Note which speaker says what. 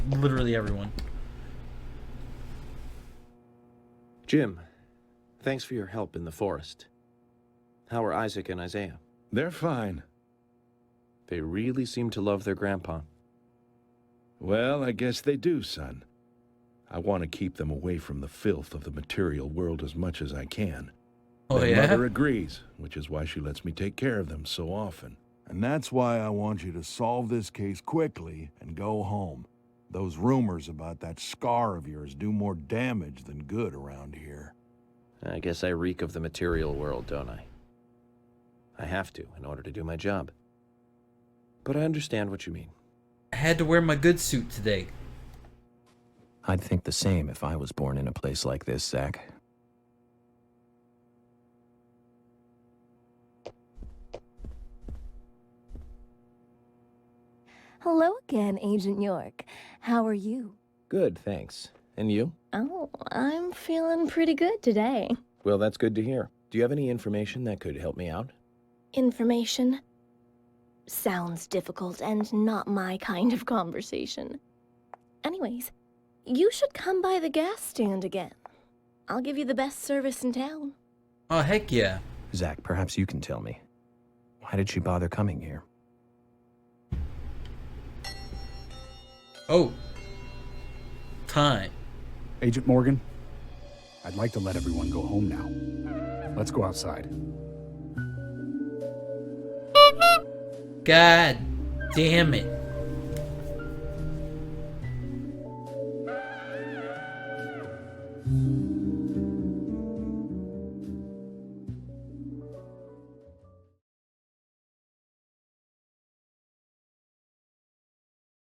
Speaker 1: literally everyone.
Speaker 2: Jim, thanks for your help in the forest. How are Isaac and Isaiah?
Speaker 3: They're fine.
Speaker 2: They really seem to love their grandpa.
Speaker 3: Well, I guess they do, son. I want to keep them away from the filth of the material world as much as I can.
Speaker 1: Oh
Speaker 3: Their
Speaker 1: yeah.
Speaker 3: mother agrees, which is why she lets me take care of them so often.
Speaker 4: And that's why I want you to solve this case quickly and go home. Those rumors about that scar of yours do more damage than good around here.
Speaker 2: I guess I reek of the material world, don't I? I have to in order to do my job. But I understand what you mean.
Speaker 1: I had to wear my good suit today.
Speaker 5: I'd think the same if I was born in a place like this, Zach.
Speaker 6: Hello again, Agent York. How are you?
Speaker 5: Good, thanks. And you?
Speaker 6: Oh, I'm feeling pretty good today.
Speaker 5: Well, that's
Speaker 2: Good to hear. Do you have any information that could help me out?
Speaker 6: Information? Sounds difficult and not my kind of conversation. Anyways, you should come by the gas stand again. I'll give you the best service in town.
Speaker 1: Oh heck yeah.
Speaker 5: Zach, perhaps you can tell me. Why did she bother coming here?
Speaker 1: Oh. Time.
Speaker 7: Agent Morgan, I'd like to let everyone go home now. Let's go outside.
Speaker 1: God damn it.